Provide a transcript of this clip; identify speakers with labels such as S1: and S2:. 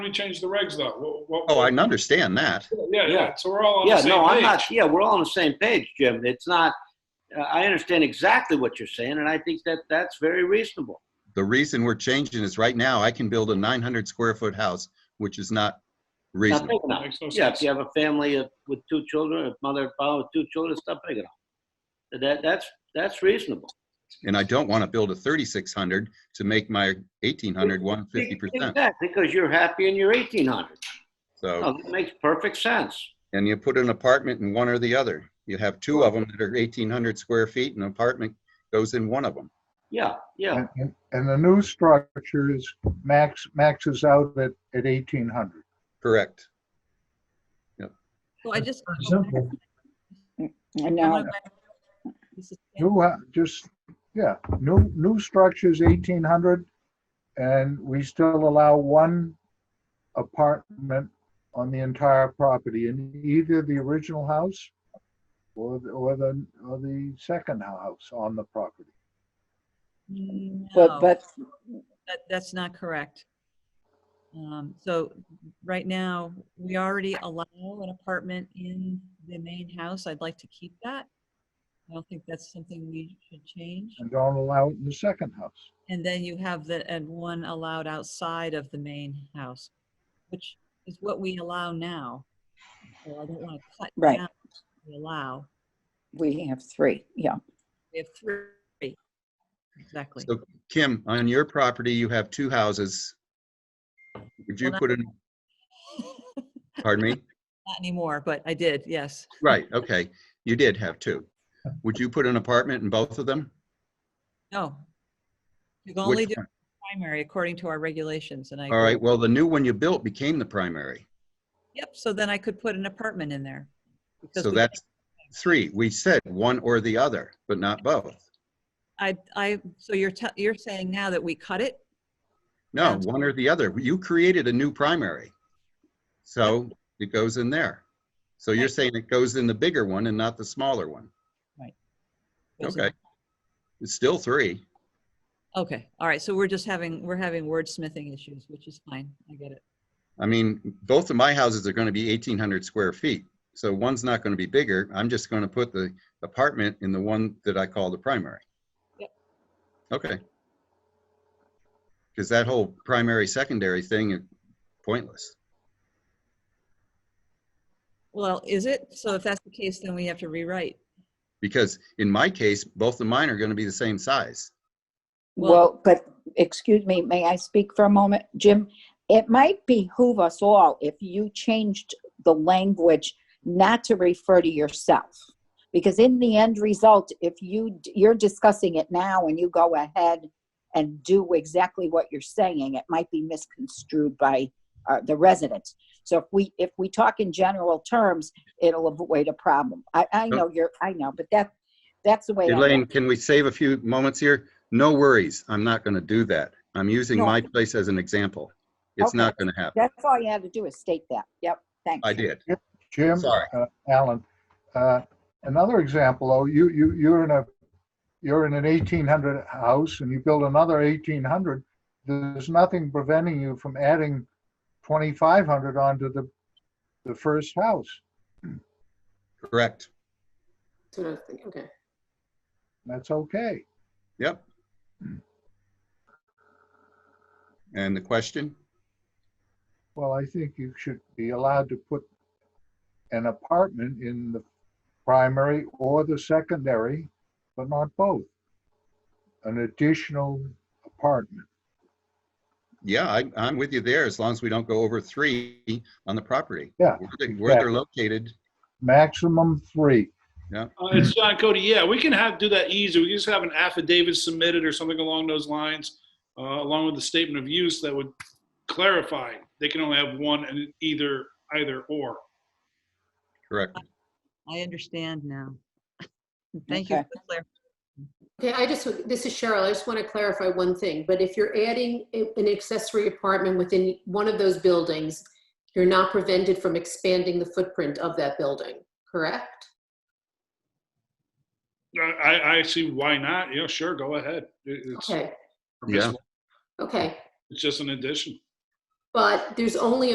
S1: we changed the regs though. What- what-
S2: Oh, I can understand that.
S1: Yeah, yeah, so we're all on the
S3: Yeah,
S1: same page.
S3: no, I'm not, yeah, we're all on the same page, Jim. It's not, uh, I understand exactly what you're saying, and I think that that's very reasonable.
S2: The reason we're changing is right now I can build a 900 square foot house, which is not
S3: Not
S2: reasonable.
S3: big enough.
S1: Makes no
S3: Yeah, if
S1: sense.
S3: you have a family of- with two children, a mother and father with two children, it's not big enough. That, that's, that's reasonable.
S2: And I don't want to build a 3600 to make my 1800 150%.
S3: Exactly, Because you're happy in your 1800.
S2: So,
S3: No, that makes perfect sense.
S2: and you put an apartment in one or the other. You have two of them that are 1800 square feet and an apartment goes in one of them.
S3: Yeah, yeah,
S4: And, and- and the new structures max, maxes out at, at eighteen hundred.
S2: Correct.
S5: Well, I just.
S4: Pretty simple.
S6: I
S5: I
S6: know.
S5: went back- This is-
S4: New, hou- just, yeah, new, new structures eighteen hundred, and we still allow one apartment on the entire property in either the original house or, the- or the, or the second house on the property.
S5: No,
S6: But, but,
S5: that- That's not correct. Um, So right now, we already allow an apartment in the main house. I'd like to keep that. I don't think that's something we should change.
S4: and don't allow it in the second house.
S5: And then you have the, and one allowed outside of the main house, which is what we allow now. So I don't want to cut
S6: Right.
S5: down what We allow,
S6: we have three, yeah.
S5: we have three. Exactly.
S2: So Kim, on your property, you have two houses. Would you
S5: Well,
S2: put in, pardon me?
S5: Not anymore, but I did, yes.
S2: Right, okay. You did have two. Would you put an apartment in both of them?
S5: No. You can only
S2: Which
S5: do
S2: one?
S5: primary according to our regulations and I.
S2: All right, well, the new one you built became the primary.
S5: Yep, so then I could put an apartment in there. because
S2: So
S5: we-
S2: that's three. We said one or the other, but not both.
S5: I, I, so you're, te- you're saying now that we cut it?
S2: No,
S5: That's-
S2: one or the other. You created a new primary. So it goes in there. So you're
S5: Right.
S2: saying it goes in the bigger one and not the smaller one.
S5: Those are-
S2: Okay. It's still three.
S5: Okay, all right, so we're just having, we're having wordsmithing issues, which is fine, I get it.
S2: I mean, both of my houses are going to be 1,800 square feet. So one's not going to be bigger. I'm just going to put the apartment in the one that I call the primary.
S5: Yep.
S2: Okay. Because that whole primary, secondary thing is pointless.
S5: Well, is it? So if that's the case, then we have to rewrite.
S2: Because in my case, both of mine are going to be the same size.
S5: Well-
S6: Well, but, excuse me, may I speak for a moment? Jim, it might behoove us all if you changed the language not to refer to yourself. Because in the end result, if you, d- you're discussing it now and you go ahead and do exactly what you're saying, it might be misconstrued by uh, the residents. So if we, if we talk in general terms, it'll avoid a problem. I, I know you're, I know, but that, that's the way. I
S2: Elaine,
S6: look.
S2: can we save a few moments here? No worries. I'm not going to do that. I'm using
S6: No.
S2: my place as an example. It's
S6: Okay.
S2: not going to happen.
S6: That's all you had to do is state that. Yep, thanks.
S2: I did.
S4: Jim?
S2: Sorry.
S4: uh, Alan, uh, another example, though, you, you, you're in a, you're in an eighteen hundred house and you build another eighteen hundred. There's nothing preventing you from adding twenty-five hundred onto the, the first house.
S2: Correct.
S7: That's what I was thinking, okay.
S4: That's okay.
S2: Yep. And the question?
S4: Well, I think you should be allowed to put an apartment in the primary or the secondary, but not both. An additional apartment.
S2: Yeah, I, I'm with you there, as long as we don't go over three on the property.
S4: Yeah,
S2: Where they- Where they're located,
S4: maximum three.
S1: Uh, It's John Cody. Yeah, we can have, do that easy. We can just have an affidavit submitted or something along those lines, uh, along with the statement of use that would clarify. They can only have one and either, either or.
S2: correct.
S5: I understand now. Thank you
S6: Okay.
S5: for the clar-
S7: Okay, I just, this is Cheryl, I just want to clarify one thing, but if you're adding a- an accessory apartment within one of those buildings, you're not prevented from expanding the footprint of that building, correct?
S1: I, I- I see why not. Yeah, sure, go ahead. It- It's
S7: Okay,
S1: permissible.
S7: okay,
S1: It's just an addition.
S7: But there's only